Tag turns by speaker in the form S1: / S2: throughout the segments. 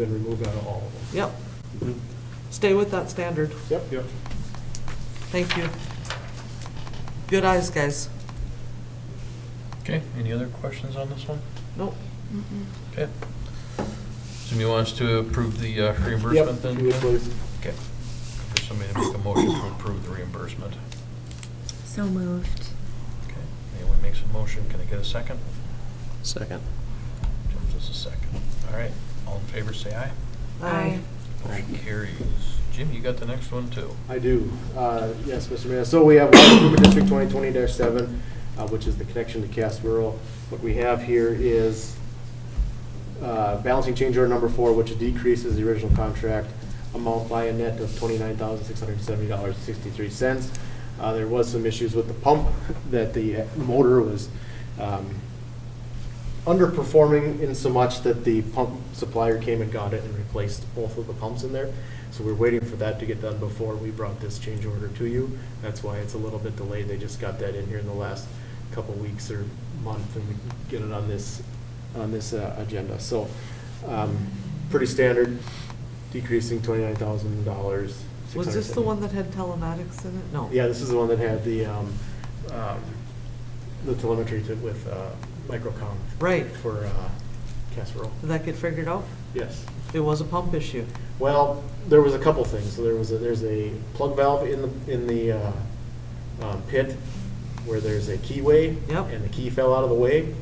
S1: been removed out of all of them.
S2: Yep. Stay with that standard.
S1: Yep, yep.
S2: Thank you. Good eyes, guys.
S3: Okay, any other questions on this one?
S2: Nope.
S3: Okay. Somebody wants to approve the uh, reimbursement then?
S1: Yep, you would please.
S3: Okay. For somebody to make a motion to approve the reimbursement.
S4: So moved.
S3: Okay, anyone makes a motion, can I get a second?
S5: Second.
S3: Jeff does a second. All right, all in favor, say aye.
S2: Um,
S4: Aye.
S3: Motion carries. Jim, you got the next one too.
S1: I do. Uh, Yes, Mr. Mayor. So we have Water Improvement District 2020-7, uh, which is the connection to Cass Rural. What we have here is uh, balancing change order number four, which decreases the original contract amount by a net of $29,670.63. Uh, There was some issues with the pump, that the motor was um, underperforming in so much that the pump supplier came and got it and replaced both of the pumps in there. So we're waiting for that to get done before we brought this change order to you. That's why it's a little bit delayed. They just got that in here in the last couple weeks or month and we can get it on this, on this uh, agenda. So, um, pretty standard, decreasing twenty-nine thousand dollars.
S2: Was this the one that had telematics in it? No.
S1: Yeah, this is the one that had the, um, um, the telemetry to- with, uh, microcom.
S2: Right.
S1: For, uh, casserole,
S2: Did that get figured out?
S1: yes.
S2: It was a pump issue.
S1: Well, there was a couple things, so there was, a there's a plug valve in the, in the, uh, um, pit where there's a keyway.
S2: Yep.
S1: And the key fell out of the way,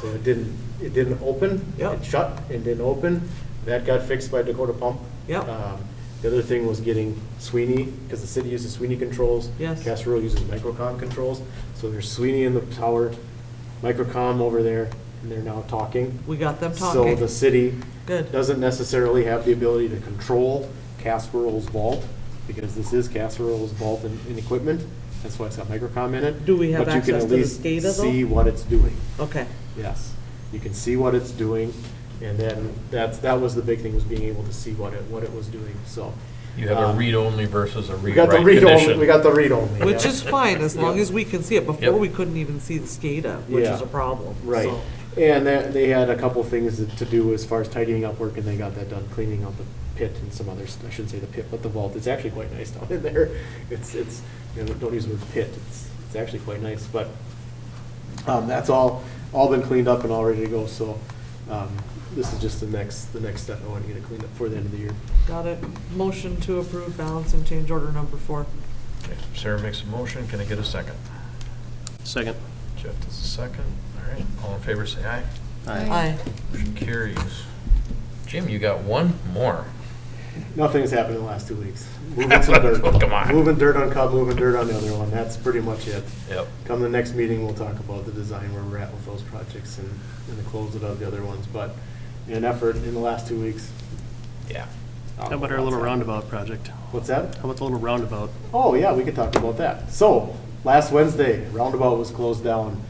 S1: so it didn't, it didn't open.
S2: Yep.
S1: It shut and didn't open, that got fixed by Dakota Pump.
S2: Yep.
S1: Um, The other thing was getting Sweeney, because the city uses Sweeney controls.
S2: Yes.
S1: Casserole uses Microcom controls, so there's Sweeney in the tower, Microcom over there, and they're now talking.
S2: We got them
S1: So
S2: talking.
S1: the city
S2: Good.
S1: doesn't necessarily have the ability to control Casserol's vault, because this is Casserol's vault in, in equipment, that's why it's got microcom in it.
S2: Do we have
S1: But you can
S2: access
S1: at
S2: to this
S1: least
S2: data, though?
S1: See what it's doing,
S2: Okay.
S1: yes. You can see what it's doing, and then that's, that was the big thing, was being able to see what it, what it was doing, so.
S3: You have
S1: um,
S3: a read-only versus a
S1: We got
S3: read-write
S1: the read only,
S3: condition.
S1: we got the read only.
S2: Which is fine, as long
S1: Yeah.
S2: as we can see it. Before,
S3: Yep.
S2: we couldn't even see the SCADA, which
S1: Yeah.
S2: is a problem.
S1: Right,
S2: so.
S1: and that, they had a couple things to do as far as tidying up work, and they got that done, cleaning out the pit and some others, I shouldn't say the pit, but the vault, it's actually quite nice down in there. It's, it's, you know, don't use the word pit, it's, it's actually quite nice, but, um, that's all, all been cleaned up and all ready to go, so, um, this is just the next, the next step, I want to get it cleaned up before the end of the year.
S2: Got it. Motion to approve balance and change order number four.
S3: Okay, Sarah makes a motion, can I get a second?
S5: Second.
S3: Jeff does a second. All right, all in favor, say aye.
S2: Aye.
S3: Motion carries. Jim, you got one more.
S1: Nothing's happened in the last two weeks. Moving some dirt.
S3: Come on.
S1: Moving dirt on Cub, moving dirt on the other one, that's pretty much it.
S3: Yep.
S1: Come the next meeting, we'll talk about the design, where we're at with those projects and, and the closeout of the other ones, but an effort in the last two weeks.
S3: Yeah.
S5: How about our little roundabout project?
S1: What's that?
S5: How about the little roundabout?
S1: Oh, yeah, we could talk about that. So, last Wednesday, roundabout was closed down.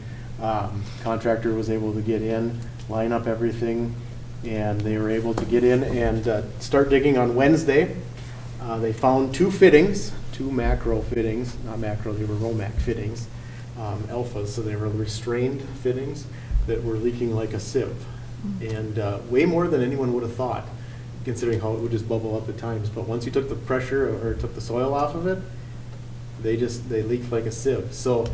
S1: Um, Contractor was able to get in, line up everything, and they were able to get in and uh, start digging on Wednesday. Uh, They found two fittings, two macro fittings, not macro, they were Romac fittings, um, alphas, so they were restrained fittings that were leaking like a sieve. And uh, way more than anyone would have thought considering how it would just bubble up at times. But once you took the pressure or took the soil off of it, they just, they leaked like a sieve. So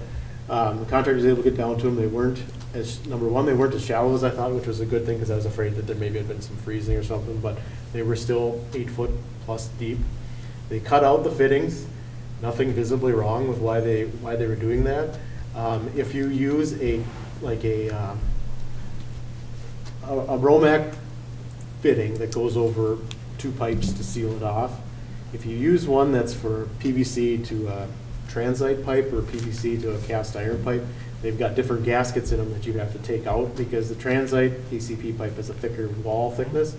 S1: um, the contractor was able to get down to them. They weren't as, number one, they weren't as shallow as I thought, which was a good thing because I was afraid that there maybe had been some freezing or something, but they were still eight foot plus deep. They cut out the fittings, nothing visibly wrong with why they, why they were doing that. Um, If you use a, like a, um, a a Romac fitting that goes over two pipes to seal it off. If you use one that's for PVC to a transite pipe or PVC to a cast iron pipe, they've got different gaskets in them that you have to take out because the transite PCP pipe is a thicker wall thickness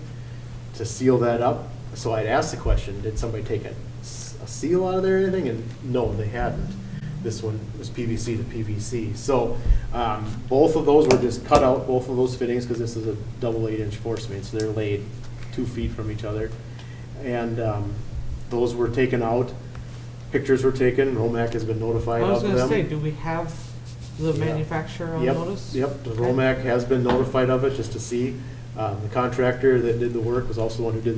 S1: to seal that up. So I'd asked the question, did somebody take a, s- a seal out of there or anything? And no, they hadn't. This one was PVC to PVC. So, um, both of those were just cut out, both of those fittings, because this is a double eight inch force main, so they're laid two feet from each other. And, um, those were taken out, pictures were taken, Romac has been
S2: I
S1: notified of
S2: was
S1: them.
S2: gonna say, do we have the
S1: Yeah.
S2: manufacturer on
S1: Yep,
S2: notice?
S1: Yep, the
S2: Okay.
S1: Romac has been notified of it, just to see. Um, The contractor that did the work was also the one who did